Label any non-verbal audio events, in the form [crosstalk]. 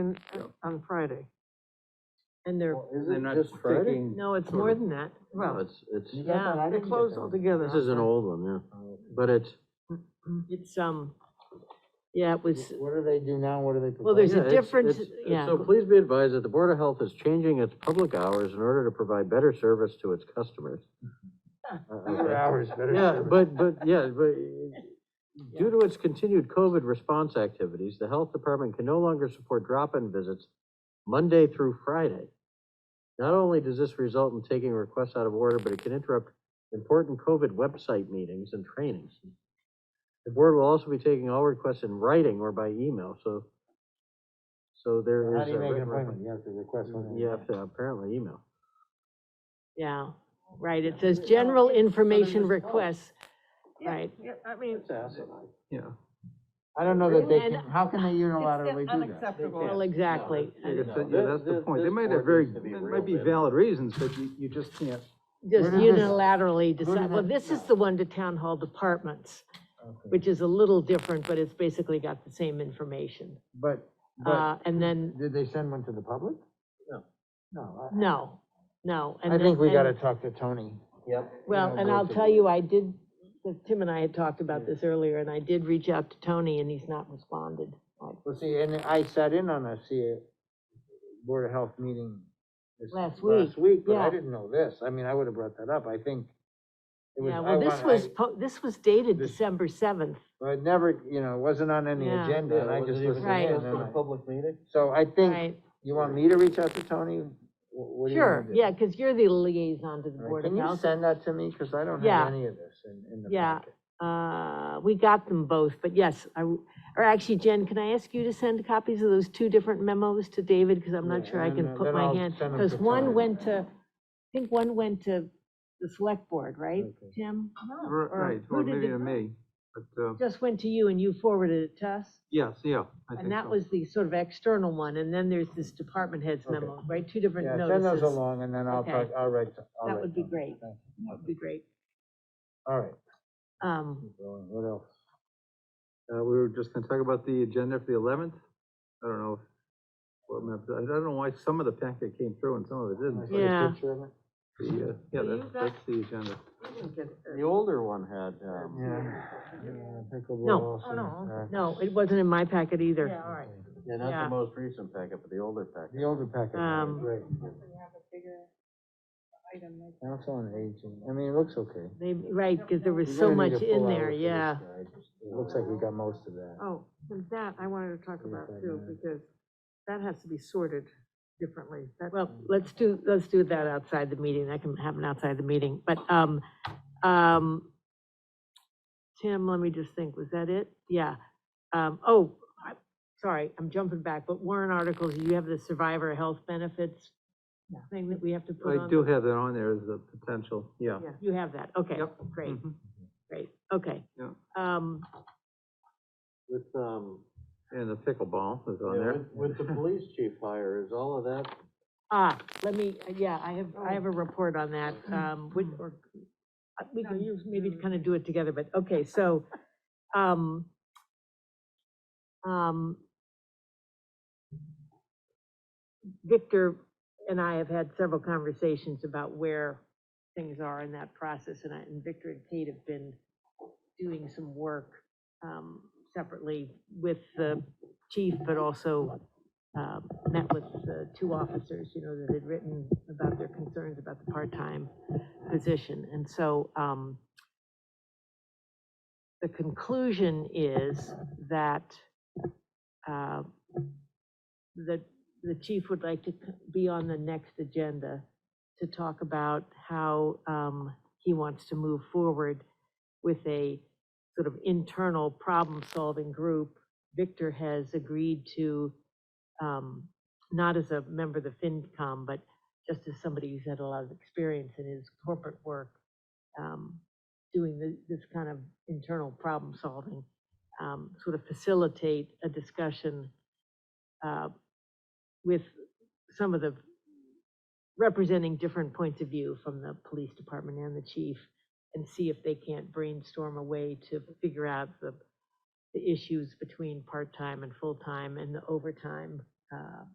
and- Yep. on Friday. And they're, Is They're it not just Friday? taking- no, it's sort more of- than that, No, well, it's, it's, Oh, You got that? I yeah, they're didn't get closed that one. altogether. this [laughs] is an old one, yeah, Uh, but it's, It's, um, yeah, it was, What do they do now, what do they? Well, there's provide? a yeah, it's- difference- it's- it's- yeah. So please be advised that the Board of Health is changing its public hours in order to provide better service to its [laughs] customers. Uh, Better okay. hours, better. Yeah, [laughs] service. but, but, yeah, but due to its continued COVID response activities, the health department can no longer support drop-in visits Monday through Friday. Not only does this result in taking requests out of order, but it can interrupt important COVID website meetings and trainings. The board will also be taking all requests in writing or by email, so, so there How is. do you a make written an request. appointment? You have to request one. You have to apparently email. yeah, right, it says general information requests, right? Yeah, I mean, Yeah. I don't know that they And can, how can they unilaterally It's do that? unacceptable. They can't. Well, exactly, Yeah, and it's- So, No, yeah, thi- that's the thi- point, they this might board have very, needs to be there real might be then. valid reasons, but you, you just can't. just Where did this- unilaterally did decide, well, that- this is the one to town hall departments, which is a little different, but it's basically got the same information. But, Uh, but, and then, did they send one to the public? No. No. I- no, no, and I then- think we and- gotta talk to Tony. Yep. Well, know, and go I'll to tell the- you, I did, Tim and I had talked about this earlier, and I did reach out to Tony, and he's not responded. I- Well, see, and I sat in on a CA, Board of Health meeting. this- Last Last week, but yeah. I didn't know this. I mean, I would have brought that up. I think. it was- Yeah, I well, this want- I- was, po- this was dated This- December 7th. Well, it never, you know, it wasn't on any Yeah. agenda, and I just listened in. Right. and then I- Public meeting? So I think, Right, you want me to reach out to Tony? Wh- what do you sure, want me to do? yeah, because you're the liaison to the All right, Board of Can you Health. send that to me, because I don't Yeah. have any of this in, in the Yeah. packet. Uh, We got them both, but yes, I, w- or actually, Jen, can I ask you to send copies of those two different memos to David? Because I'm not Yeah, sure I and can then- put then my I'll hand, send 'em because to one Tony. went to, I think one went to the Select Board, right, Okay. Tim? R- or Right, who or did maybe it to go? me, but, uh, Just went to you and you forwarded it to us? yes, yeah. I think And that so. was the sort of external one, and then there's this department heads Okay. memo, right, two different Yeah, send those notices. That along, and then I'll, Okay. talk- I'll write, to- I'll That write would be Tony. great. Thank you. would be great. All right, Um, keep going. what else? Uh, we were just gonna talk about the agenda for the eleventh. I don't know. if- Well, no, I don't know why some of the packet came through and some of it Can I didn't. see a Yeah. picture of it? The, uh, Yeah, Do you that's, that's the agenda. The older one had, um. Yeah. Yeah, I think we'll No. all Oh, see. no, All right. no, it wasn't in my packet either. Yeah, all right. Yeah, Yeah. not the most recent packet, but the older packet. The older packet, would be Um, great. Council on Aging, I mean, it looks okay. They, right, because there was We're so gonna need much a full in hour there, for this yeah. guy. It looks like we got most of that. Oh, and that I wanted to talk Yeah, about that, too, yeah. because that has to be sorted differently. Well, let's do, let's do that outside the meeting, that can happen outside the meeting, but, um, um, Tim, let me just think, was that it? Yeah, um, oh, I, sorry, I'm jumping back, but warrant articles, you have the survivor health benefits thing that we have to put on? I do have that on there as a potential, yeah. Yeah, You have that, okay, Yep. great, Mhm. great, okay. Yeah. Um, With, um, And the pickleball is on yeah, there. with, with the police chief hire, is all of that, Ah, let me, yeah, I have, I have a report on that, um, which, or, uh, we can use, maybe to kind of do it together, but, okay, so, um, um, Victor and I have had several conversations about where things are in that process, and I, and Victor and Kate have been doing some work, um, separately with the chief, but also, um, met with the two officers, you know, that had written about their concerns about the part-time position. And so um, the conclusion is that uh, that the chief would like to c- be on the next agenda to talk about how um, he wants to move forward with a sort of internal problem-solving group. Victor has agreed to um, not as a member of the FinCom, but just as somebody who's had a lot of experience in his corporate work, um, doing thi- this kind of internal problem solving, um, sort of facilitate a discussion uh, with some of the, representing different points of view from the police department and the chief, and see if they can't brainstorm a way to figure out the the issues between part-time and full-time and the overtime uh,